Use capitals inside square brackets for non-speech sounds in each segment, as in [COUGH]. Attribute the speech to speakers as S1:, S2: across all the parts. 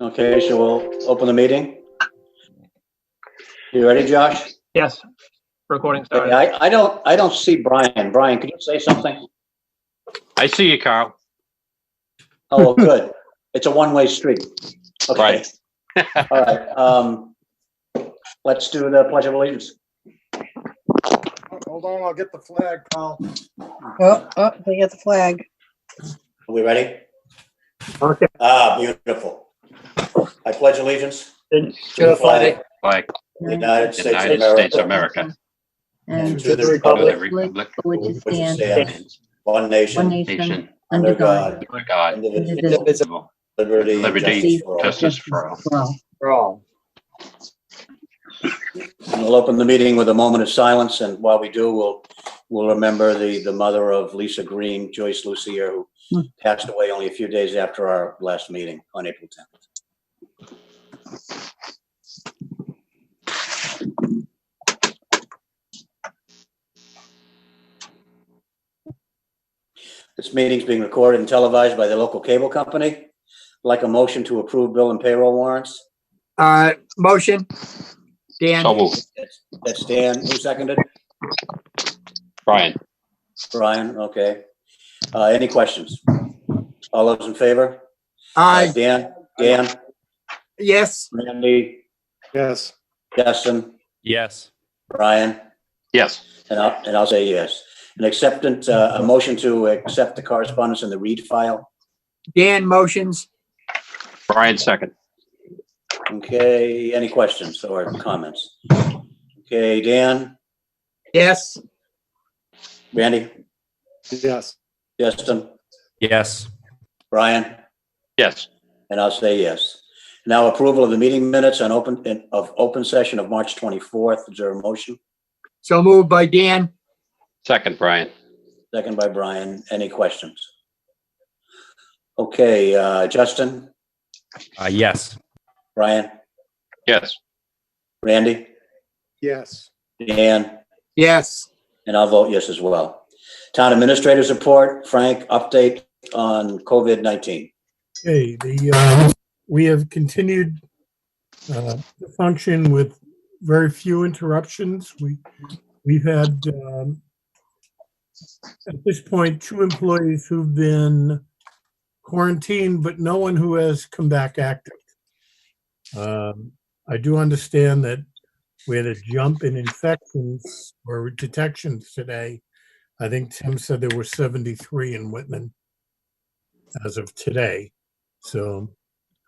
S1: Okay, so we'll open the meeting. You ready, Josh?
S2: Yes, recording
S1: Okay,
S2: started.
S1: I, I don't, I don't see Brian. Brian, could you say something?
S3: I see you, Carl.
S1: Oh, good. It's a one-way street. Okay.
S3: Right.
S1: [LAUGHS] All right, um, let's do the pledge of allegiance.
S4: Hold on, I'll get the flag, Carl.
S5: Oh, oh, they got the flag.
S1: Are we ready?
S2: Okay.
S1: Ah, beautiful. I pledge allegiance to the
S5: the
S1: flag of
S3: Like
S1: the United
S3: the
S1: States
S3: United
S1: of
S3: States of
S1: America,
S3: America,
S1: and
S6: and
S1: to the
S3: of the
S1: republic
S3: Republic,
S6: which
S1: which
S6: stands
S1: stands one
S6: one
S1: nation,
S6: nation
S3: nation,
S6: under God,
S3: under God,
S1: indivisible,
S3: indivisible,
S1: liberty, and
S3: liberty,
S1: justice for all.
S3: justice for all.
S6: well,
S1: And We'll open the meeting with a moment of silence, and while we do, we'll, we'll remember the, the mother of Lisa Green, Joyce Lucier,
S6: Hmm.
S1: who passed away only a few days after our last meeting on April 10th. This meeting's being recorded and televised by the local cable company. Like a motion to approve bill and payroll warrants.
S2: Uh, motion, Dan,
S3: So moved.
S1: That's Dan, who seconded?
S3: Brian,
S1: Brian, okay. Uh, any questions? All those in favor? Uh,
S2: aye,
S1: Dan, Dan,
S2: Uh, yes,
S1: Randy,
S4: Yes.
S1: Justin,
S7: Yes.
S1: Brian,
S3: yes,
S1: and I'll, and I'll say yes. An acceptance, uh, a motion to accept the correspondence in the read file.
S2: Dan motions,
S3: Brian second.
S1: Okay, any questions or comments? Okay, Dan,
S2: yes,
S1: Randy,
S4: Yes.
S1: Justin,
S7: Yes.
S1: Brian,
S3: Yes,
S1: and I'll say yes. Now approval of the meeting minutes on open, in- of open session of March 24th. Is there a motion?
S2: so moved by Dan,
S3: second, Brian.
S1: Second by Brian. Any questions? Okay, uh, Justin,
S7: Uh, yes.
S1: Brian,
S3: Yes,
S1: Randy,
S4: Yes.
S1: Dan,
S2: yes,
S1: and I'll vote yes as well. Town Administrator's report, Frank, update on COVID-19.
S8: Okay, the, uh, we have continued uh, to function with very few interruptions. We, we've had, um, at this point, two employees who've been quarantined, but no one who has come back active. Um, I do understand that we had a jump in infections or detections today. I think Tim said there were 73 in Whitman as of today. So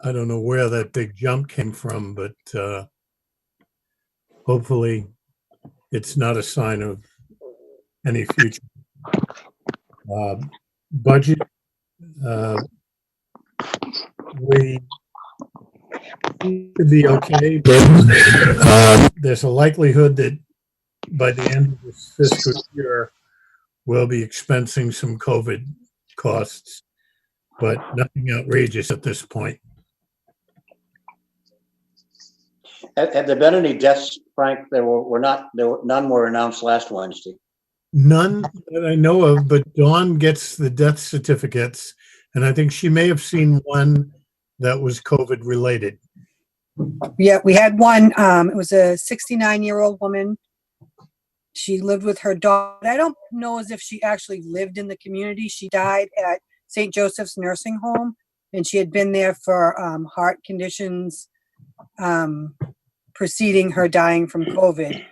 S8: I don't know where that big jump came from, but uh, hopefully it's not a sign of any future. Uh, budget. Uh, we could be okay, but uh, there's a likelihood that by the end of this fiscal year, we'll be expensing some COVID costs but nothing outrageous at this point.
S1: Have, have there been any deaths, Frank? There were, were not, there were, none were announced last Wednesday.
S8: None that I know of, but Dawn gets the death certificates, and I think she may have seen one that was COVID related.
S5: Yeah, we had one, um, it was a sixty-nine-year-old woman. She lived with her dog. I don't know as if she actually lived in the community. She died at St. Joseph's Nursing Home, and she had been there for, um, heart conditions, um, preceding her dying from COVID.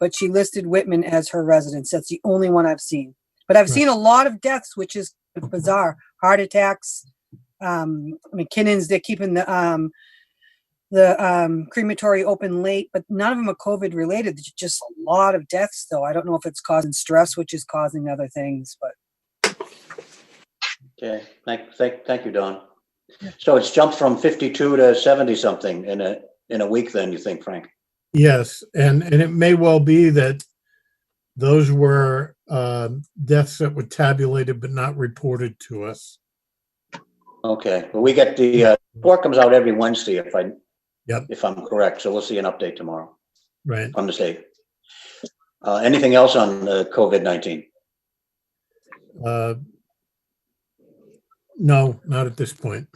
S5: But she listed Whitman as her residence. That's the only one I've seen. But I've seen a lot of deaths, which is bizarre. Heart attacks, um, McKinnon's, they're keeping the, um, the um, crematory open late, but none of them are COVID related. There's just a lot of deaths, though. I don't know if it's causing stress, which is causing other things, but
S1: Okay, thank, thank, thank you, Don. So it's jumped from 52 to 70-something in a, in a week then, you think, Frank?
S8: Yes, and, and it may well be that those were um deaths that were tabulated but not reported to us.
S1: Okay, well, we get the, uh, report comes out every Wednesday if I,
S8: Yep.
S1: if I'm correct, so we'll see an update tomorrow,
S8: Right.
S1: if I'm mistaken. Uh, anything else on uh, COVID-19?
S8: Uh, no, not at this point.